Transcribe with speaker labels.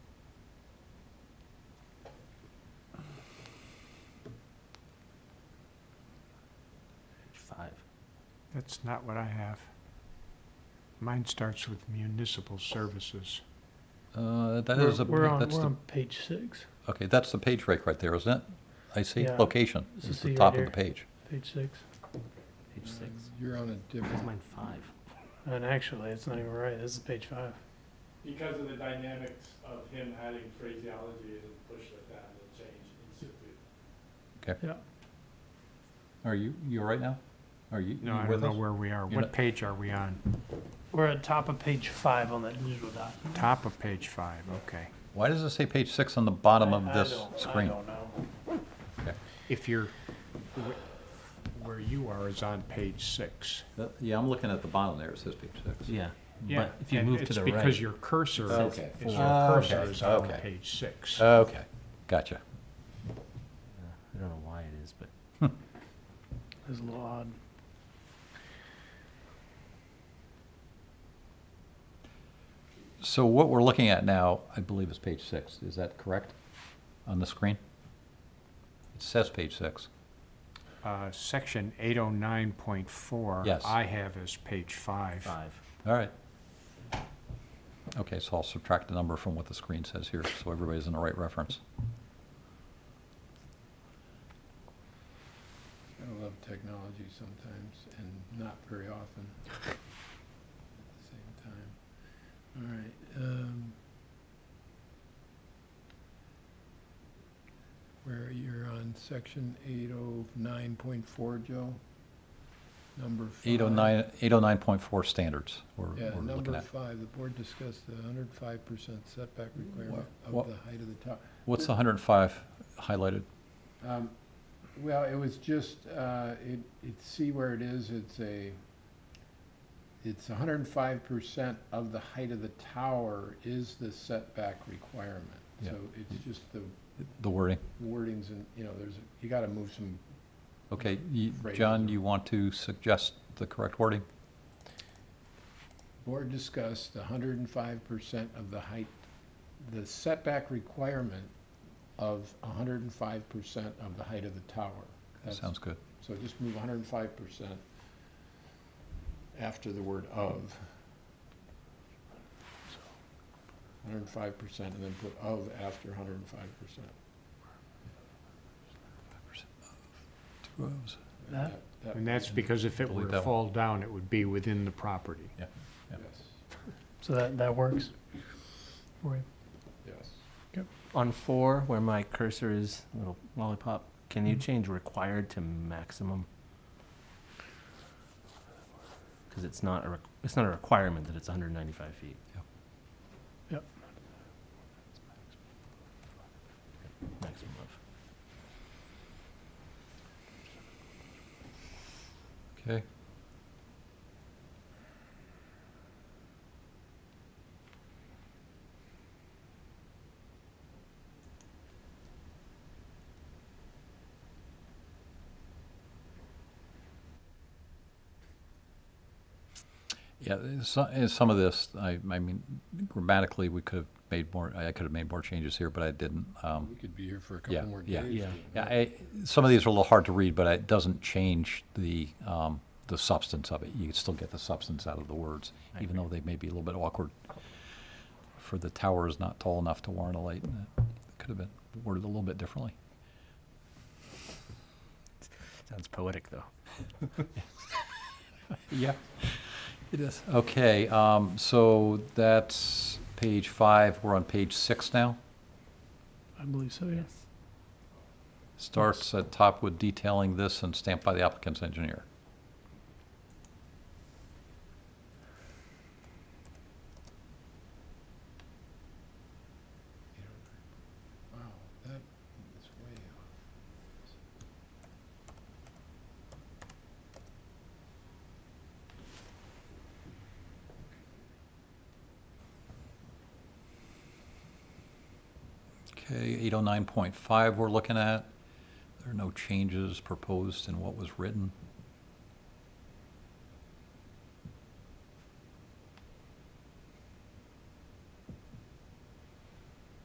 Speaker 1: That's not what I have. Mine starts with municipal services.
Speaker 2: Uh, that
Speaker 3: We're-
Speaker 2: is, a-
Speaker 3: We're on,
Speaker 2: that's
Speaker 3: we're
Speaker 2: the,
Speaker 3: on page six,
Speaker 2: okay, that's the page break right there, isn't it? I see,
Speaker 3: Yeah.
Speaker 2: location,
Speaker 3: This
Speaker 2: is
Speaker 3: is
Speaker 2: the
Speaker 3: the
Speaker 2: top of
Speaker 3: right
Speaker 2: the page.
Speaker 3: page six.
Speaker 4: Page six.
Speaker 5: You're on a
Speaker 4: Where's
Speaker 5: different,
Speaker 4: mine five?
Speaker 3: And actually, it's not even right. This is page five.
Speaker 6: because of the dynamics of him adding phraseology and push like that, it changed instantly.
Speaker 2: Are you, you all right now? Are you,
Speaker 1: No,
Speaker 2: you
Speaker 1: I don't
Speaker 2: with
Speaker 1: know
Speaker 2: us?
Speaker 1: where we are.
Speaker 2: You're
Speaker 1: What
Speaker 2: not-
Speaker 1: page are we on?
Speaker 3: We're at top of page five on that digital document.
Speaker 1: Top of page five, okay.
Speaker 2: Why does it say page six on the bottom of
Speaker 3: I- I
Speaker 2: this
Speaker 3: don't- I
Speaker 2: screen?
Speaker 3: don't know.
Speaker 1: If you're, wh- where you are is on page six.
Speaker 2: That- Yeah, I'm looking at the bottom there, it says page six.
Speaker 4: Yeah.
Speaker 1: Yeah,
Speaker 4: But if you
Speaker 1: and
Speaker 4: move to the
Speaker 1: It's because
Speaker 4: right,
Speaker 1: your cursor, is
Speaker 2: Okay.
Speaker 1: your
Speaker 2: Ah,
Speaker 1: cursor
Speaker 2: okay,
Speaker 1: is on
Speaker 2: okay.
Speaker 1: page six.
Speaker 2: Okay, gotcha.
Speaker 4: Uh, I don't know why it is, but
Speaker 3: It's a little odd.
Speaker 2: So what we're looking at now, I believe is page six, is that correct? On the screen? It says page six.
Speaker 1: Uh, Section 809.4.
Speaker 2: Yes.
Speaker 1: I have as page five.
Speaker 4: five.
Speaker 2: All right. Okay, so I'll subtract the number from what the screen says here, so everybody's in the right reference.
Speaker 5: I love technology sometimes and not very often at the same time. All right, um. Where you're on section eight oh nine point four, Joe? Number five.
Speaker 2: 809, 809.4 standards we're
Speaker 5: Yeah,
Speaker 2: we're looking
Speaker 5: number
Speaker 2: at.
Speaker 5: five, the board discussed the hundred five percent setback requirement
Speaker 2: what-
Speaker 5: of the height of the tower.
Speaker 2: What's the 105 highlighted?
Speaker 5: Um, Well, it was just, uh, it, it, see where it is, it's a, it's hundred and five percent of the height of the tower is the setback requirement.
Speaker 2: Yeah.
Speaker 5: So it's just the
Speaker 2: The wording?
Speaker 5: wordings and, you know, there's, you gotta move some,
Speaker 2: Okay, you-
Speaker 5: Right.
Speaker 2: John, you want to suggest the correct wording?
Speaker 5: board discussed the hundred and five percent of the height, the setback requirement of hundred and five percent of the height of the tower.
Speaker 2: That
Speaker 5: That's-
Speaker 2: sounds good.
Speaker 5: So just move hundred and five percent after the word of. Hundred and five percent and then put of after hundred and five percent.
Speaker 2: Two O's.
Speaker 3: That-
Speaker 1: And that's because if it were
Speaker 2: Delete that
Speaker 1: to
Speaker 2: one.
Speaker 1: fall down, it would be within the property.
Speaker 2: yeah.
Speaker 5: Yes,
Speaker 3: So that, that works. for you.
Speaker 5: yes.
Speaker 4: On four, where my cursor is, little lollipop, can you change required to maximum? Because it's not a, req- it's not a requirement that it's hundred and ninety-five feet.
Speaker 2: Yep.
Speaker 3: Yep.
Speaker 4: Maximum of.
Speaker 2: Okay. Yeah, some, some of this, I, I mean, grammatically, we could have made more, I could have made more changes here, but I didn't. Um,
Speaker 5: We could be here for a
Speaker 2: Yeah,
Speaker 5: couple more
Speaker 2: yeah.
Speaker 5: days.
Speaker 4: Yeah.
Speaker 2: yeah, I, some of these are a little hard to read, but it doesn't change the, um, the substance of it. You can still get the substance out of the words,
Speaker 4: I
Speaker 2: even though they may be a little bit awkward. For the tower is not tall enough to warrant a light, and it could have been worded a little bit differently.
Speaker 4: Sounds poetic, though.
Speaker 2: Yeah, it is. Okay, um, so that's page five. We're on page six now.
Speaker 3: I believe so, yeah.
Speaker 2: Starts at top with detailing this and stamped by the applicant's engineer.
Speaker 5: Wow, that is way off.
Speaker 2: Okay, eight oh nine point five we're looking at. There are no changes proposed in what was written.